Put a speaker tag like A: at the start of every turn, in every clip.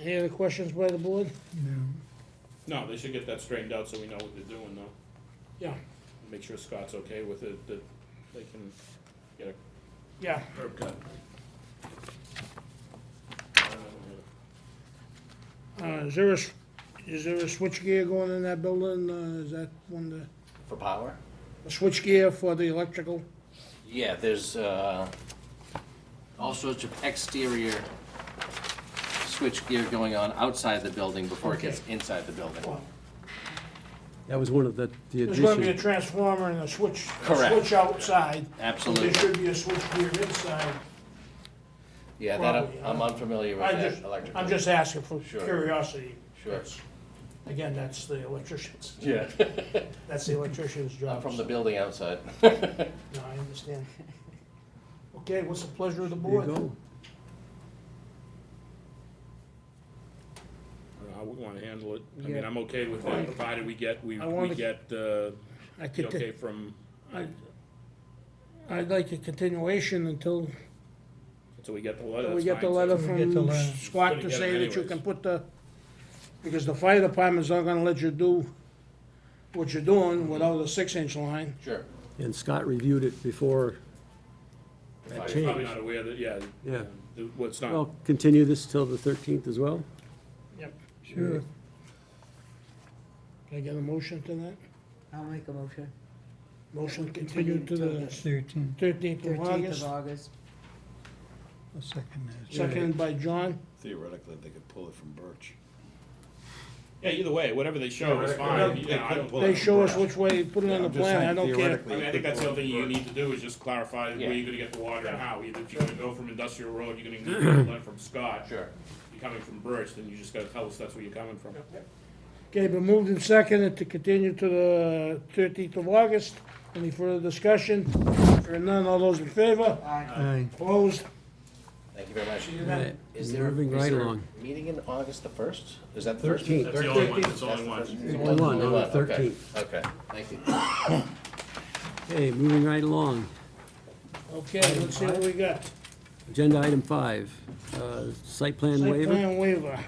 A: Any other questions by the board?
B: No, they should get that straightened out so we know what they're doing though.
A: Yeah,
B: Make sure Scott's okay with it, that they can get a
A: yeah.
B: curb cut.
A: Uh, is there a, s- is there a switchgear going in that building? Uh, is that one the,
C: For power?
A: a switchgear for the electrical?
C: Yeah, there's uh, all sorts of exterior switch gear going on outside the building before it gets
A: Okay.
C: inside the building.
D: That was one of the, the
A: There's gonna be a
D: addition.
A: transformer and a switch, a
C: Correct.
A: switch outside.
C: Absolutely.
A: There should be a switchgear inside.
C: Yeah, that, I'm-
A: Probably,
C: I'm
A: uh,
C: unfamiliar with
A: I
C: that
A: just,
C: electrical.
A: I'm just asking for
C: Sure.
A: curiosity.
C: Sure.
A: That's- Again, that's the electrician's,
C: Yeah.
A: that's the electrician's
C: I'm
A: job.
C: from the building outside.
A: No, I understand. Okay, what's the pleasure of the
D: There you
A: board?
D: go.
B: I would wanna handle it. I mean,
A: Yeah.
B: I'm okay with that, provided we get, we,
A: I
B: we
A: wanna-
B: get, uh,
A: I
B: the
A: could,
B: okay
A: t-
B: from,
A: I- I'd like a continuation until
B: until we get the letter,
A: we
B: that's
A: get the
B: fine, so-
A: letter
E: Get the
A: from
E: letter.
A: Scott to
B: Gonna get
A: say
B: it
A: that you
B: anyways.
A: can put the, because the fire department's not gonna let you do what you're doing without a six-inch line.
C: Sure.
D: And Scott reviewed it before.
B: Probably-
D: changed.
B: Probably not aware that, yeah.
D: Yeah.
B: the- What's not,
D: Well, continue this till the 13th as well?
A: Yep.
E: Sure.
A: Can I get a motion to that?
F: I'll make a motion.
A: Motion continued to the
E: Thirteen,
A: thirteenth of
F: Thirteenth
A: August,
F: of August.
E: I'll second that.
A: seconded by John.
G: Theoretically, they could pull it from Birch.
B: yeah, either way, whatever they show is fine, yeah, I don't.
A: They show us which way, put it on the plan, I don't care.
B: I mean, I think that's the other thing you need to do is just clarify where
C: Yeah.
B: you're gonna get the water and how. Either if you're gonna go from Industrial Road, you're gonna need to learn from Scott.
C: Sure.
B: You're coming from Birch, then you just gotta tell us that's where you're coming from.
A: Okay, but moved and seconded to continue to the thirteenth of August. Any further discussion? Hearing none, all those in favor?
F: Aye.
E: Aye.
A: Opposed?
C: Thank you very much.
D: Right.
C: Is there,
D: Moving
C: is
D: right
C: there a
D: along.
C: meeting in August the first? Is that the first? meeting?
B: That's the only one, that's the only one.
D: Only one, on the
C: Okay,
D: 13th.
C: Okay, thank you.
D: Okay, moving right along.
A: Okay, let's see what we got.
D: Agenda item five, uh, site plan
A: Site
D: waiver.
A: plan waiver.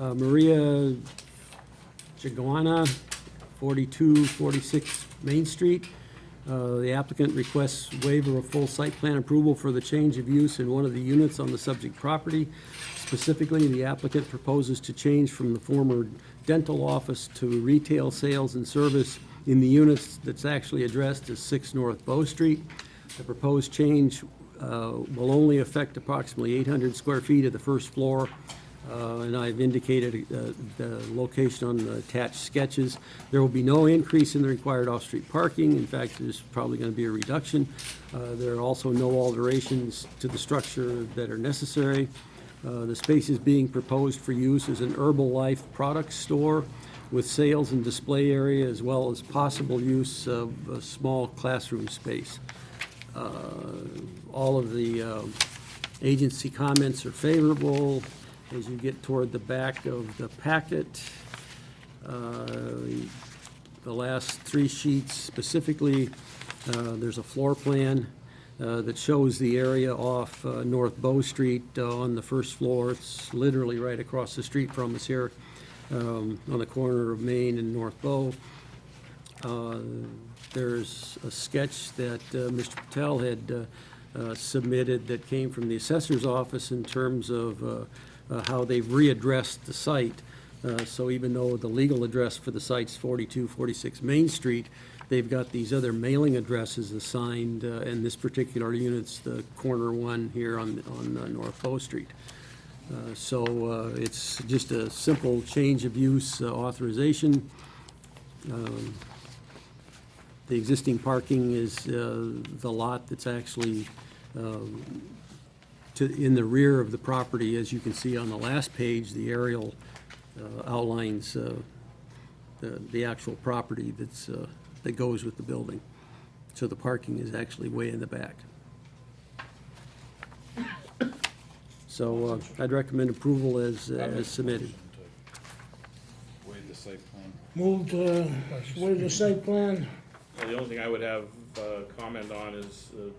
D: Uh, Maria Chiguana, 4246 Main Street. Uh, The applicant requests waiver of full site plan approval for the change of use in one of the units on the subject property. Specifically, the applicant proposes to change from the former dental office to retail sales and service in the units that's actually addressed as 6 North Bow Street. The proposed change uh, will only affect approximately 800 square feet of the first floor uh, and I've indicated uh, the location on the attached sketches. There will be no increase in the required off-street parking. In fact, there's probably going to be a reduction. Uh, There are also no alterations to the structure that are necessary. Uh, The space is being proposed for use as an Herbalife product store with sales and display area, as well as possible use of a small classroom space. Uh, All of the um, agency comments are favorable. As you get toward the back of the packet, uh, the last three sheets specifically, uh, there's a floor plan uh, that shows the area off uh, North Bow Street uh, on the first floor. It's literally right across the street from us here, um, on the corner of Main and North Bow. Uh, There's a sketch that uh, Mr. Patel had uh, uh, submitted that came from the assessor's office in terms of uh, uh, how they've readdressed the site. Uh, So even though the legal address for the site's 4246 Main Street, they've got these other mailing addresses assigned, uh, and this particular unit's the corner one here on, on uh, North Bow Street. Uh, So uh, it's just a simple change of use uh, authorization. The existing parking is uh, the lot that's actually um, to, in the rear of the property. As you can see on the last page, the aerial uh, outlines uh, the the actual property that's, uh, that goes with the building. So the parking is actually way in the back. So uh, I'd recommend approval as uh, as submitted.
G: Waive the site plan.
A: Moved to, where's the site plan?
B: Well, The only thing I would have, uh, comment on is, uh,